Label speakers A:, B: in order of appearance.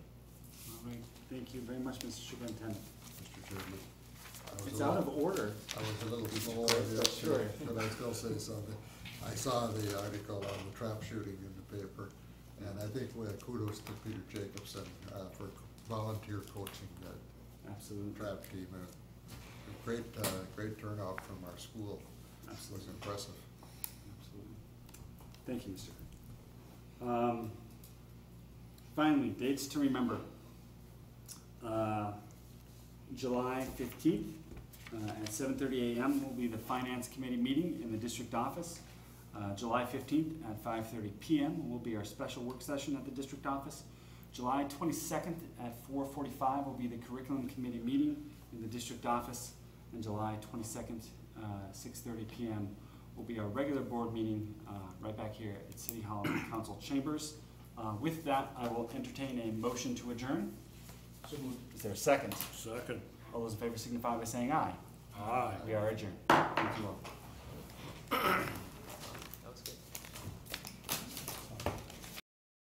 A: Thank you very much, Mr. Superintendent.
B: Mr. Chairman. I was
A: It's
B: a
A: out of
B: little-
A: order.
B: I was a little below the
A: Sure.
B: but I still say something. I saw the article on the trap shooting in the paper, and I think we had kudos to Peter Jacobson uh, for volunteer coaching that
A: Absolutely.
B: trap team. And a Great, uh, great turnout from our school. This was impressive.
A: Absolutely. Thank you, Mr. Kirk. Um, Finally, dates to remember. Uh, July fifteenth, uh, at seven thirty AM will be the Finance Committee meeting in the district office. Uh, July fifteenth at five thirty PM will be our special work session at the district office. July twenty-second at four forty-five will be the Curriculum Committee meeting in the district office. And July twenty-second, uh, six thirty PM will be our regular board meeting, uh, right back here at City Hall in the Council Chambers. Uh, with that, I will entertain a motion to adjourn. Is there a second?
C: Second.
A: All those in favor signify by saying aye.
C: Aye.
A: We are adjourned. Thank you all.